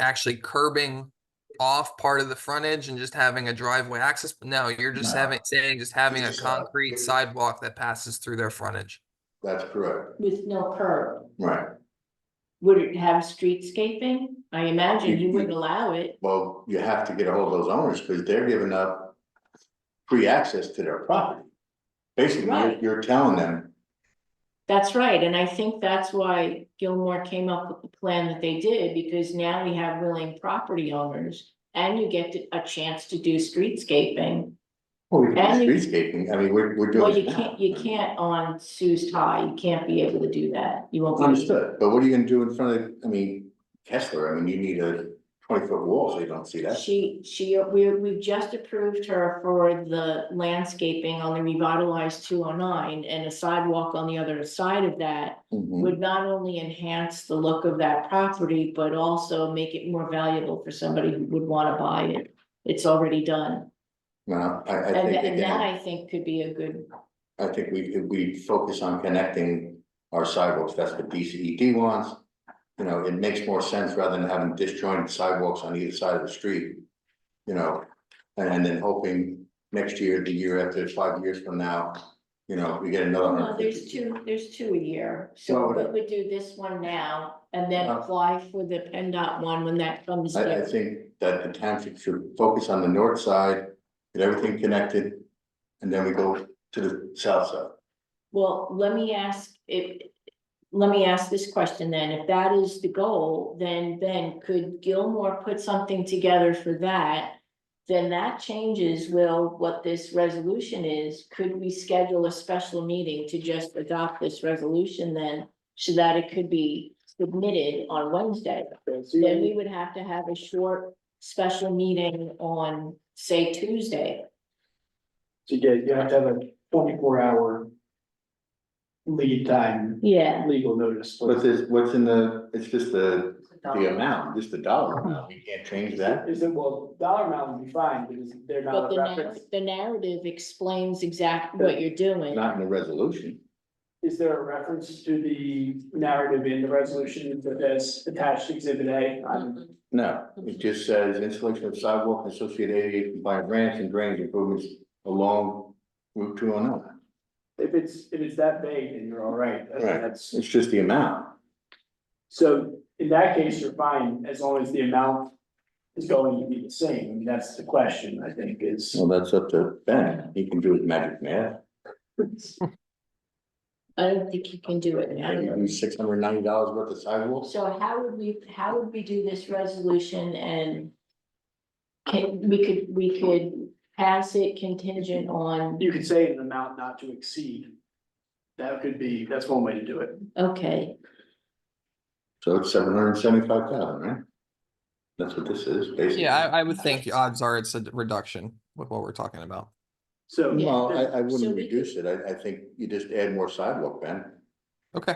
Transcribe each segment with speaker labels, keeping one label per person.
Speaker 1: actually curbing off part of the frontage and just having a driveway access. But No, you're just
Speaker 2: No.
Speaker 1: having, saying, just having a
Speaker 2: Just a-
Speaker 1: concrete sidewalk that passes through their frontage.
Speaker 2: That's correct,
Speaker 3: with no curb.
Speaker 2: right.
Speaker 3: Would it have streetscaping? I imagine you would allow it.
Speaker 2: Well, you have to get a hold of those owners because they're giving up free access to their property. Basically, you're,
Speaker 3: Right.
Speaker 2: you're telling them,
Speaker 3: That's right, and I think that's why Gilmore came up with the plan that they did, because now we have willing property owners. And you get to- a chance to do streetscaping.
Speaker 2: well, "Oh, we can
Speaker 3: And
Speaker 2: do
Speaker 3: you-
Speaker 2: streetscaping, I mean, we're, we're doing.
Speaker 3: Well,
Speaker 2: it
Speaker 3: you
Speaker 2: now.
Speaker 3: can't, you can't on Sue's High, you can't be able to do that. You won't. be-
Speaker 2: Understood, but what are you gonna do in front of, I mean, Kessler, I mean, you need a twenty foot wall, so you don't see that.
Speaker 3: She, she, we, we've just approved her for the landscaping on the revitalized two oh nine and a sidewalk on the other side of that.
Speaker 2: Mhm.
Speaker 3: Would not only enhance the look of that property, but also make it more valuable for somebody who would wanna buy it. It's already done.
Speaker 2: No, I, I
Speaker 3: And,
Speaker 2: think
Speaker 3: and that
Speaker 2: again,
Speaker 3: I think could be a good,
Speaker 2: I think we, if we focus on connecting our sidewalks, that's what DCED wants. You know, it makes more sense rather than having disjointed sidewalks on either side of the street. You know, and then hoping next year, the year after, five years from now, you know, we get another.
Speaker 3: no,
Speaker 2: 150.
Speaker 3: there's two, there's two a year.
Speaker 2: Well,
Speaker 3: So
Speaker 2: whatever.
Speaker 3: we would do this one now and then
Speaker 2: Uh-huh.
Speaker 3: apply for the PennDOT one when that comes
Speaker 2: I, I
Speaker 3: down.
Speaker 2: think that the township should focus on the north side, get everything connected, and then we go to the south side.
Speaker 3: Well, let me ask, if, let me ask this question then, if that is the goal, then, then could Gilmore put something together for that? Then that changes, Will, what this resolution is, could we schedule a special meeting to just adopt this resolution then? So that it could be submitted on Wednesday, then we would have to have a short special meeting on, say, Tuesday.
Speaker 4: So yeah, you have to have a twenty-four hour lead time,
Speaker 3: Yeah,
Speaker 4: legal notice.
Speaker 2: What's this, what's in the, it's just the, the amount, just the dollar amount, you can't change that.
Speaker 4: Is it, well, dollar amount would be fine, because they're
Speaker 3: But
Speaker 4: not
Speaker 3: the
Speaker 4: a
Speaker 3: narrative,
Speaker 4: reference.
Speaker 3: the narrative explains exactly what you're doing.
Speaker 2: Not in the resolution.
Speaker 4: Is there a reference to the narrative in the resolution that is attached to exhibit A? I'm-
Speaker 3: Mhm.
Speaker 2: No, it just says installation of sidewalk and associated ADA compliant ramps and drainage improvements along Route two oh nine.
Speaker 4: If it's, if it's that vague, then you're all right. That-
Speaker 2: Right.
Speaker 4: That's,
Speaker 2: It's just the amount.
Speaker 4: so in that case, you're fine, as long as the amount is going to be the same. I mean, that's the question, I think, is.
Speaker 2: Well, that's up to Ben. He can do his magic math.
Speaker 3: I don't think you can do it now.
Speaker 2: Six hundred ninety dollars worth of sidewalks.
Speaker 3: So how would we, how would we do this resolution and can, we could, we could pass it contingent on,
Speaker 4: You could say an amount not to exceed. That could be, that's one way to do it.
Speaker 3: okay,
Speaker 2: So it's seven hundred and seventy-five thousand, right? That's what this is, basically.
Speaker 1: Yeah, I, I would think uh, odds are it's a reduction with what we're talking about.
Speaker 4: So.
Speaker 2: Well, I, I
Speaker 3: So
Speaker 2: wouldn't
Speaker 3: we
Speaker 2: reduce it. I, I think you just add more sidewalk, Ben.
Speaker 1: Okay,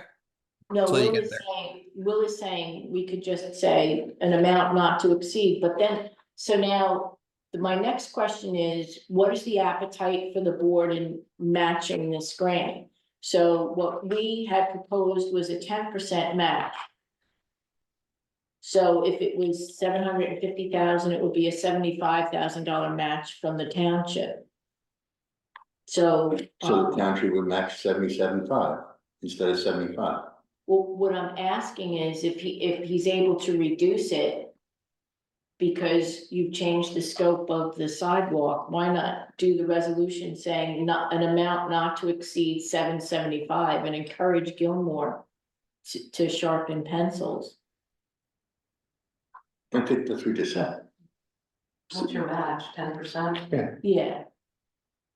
Speaker 3: no,
Speaker 1: So you
Speaker 3: Will
Speaker 1: get
Speaker 3: is
Speaker 1: there.
Speaker 3: saying, Will is saying, we could just say an amount not to exceed, but then, so now my next question is, what is the appetite for the board in matching this grant? So what we had proposed was a ten percent match. So if it was seven hundred and fifty thousand, it would be a seventy-five thousand dollar match from the township. So,
Speaker 2: So the
Speaker 3: um,
Speaker 2: township would match seventy-seven five instead of seventy-five.
Speaker 3: well, what I'm asking is if he, if he's able to reduce it. Because you've changed the scope of the sidewalk, why not do the resolution saying not, an amount not to exceed seven seventy-five and encourage Gilmore. To, to sharpen pencils.
Speaker 2: I think that's what we just said.
Speaker 5: What's your match, ten percent?
Speaker 3: Yeah.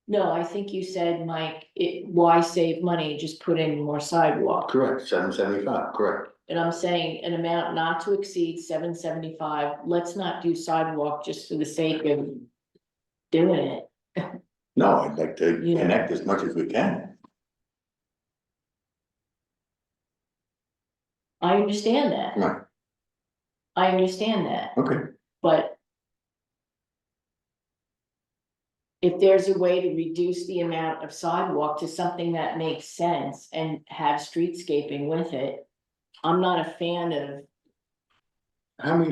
Speaker 3: No, I think you said, Mike, it, why save money, just put in more sidewalk,
Speaker 2: Correct, seven seventy-five, correct.
Speaker 3: and I'm saying an amount not to exceed seven seventy-five, let's not do sidewalk just for the sake of. Doing it,
Speaker 2: No, I'd like to
Speaker 3: Yeah.
Speaker 2: connect as much as we can.
Speaker 3: I understand that,
Speaker 2: Right,
Speaker 3: I understand that,
Speaker 2: okay.
Speaker 3: but. If there's a way to reduce the amount of sidewalk to something that makes sense and have streetscaping with it. I'm not a fan of
Speaker 2: How many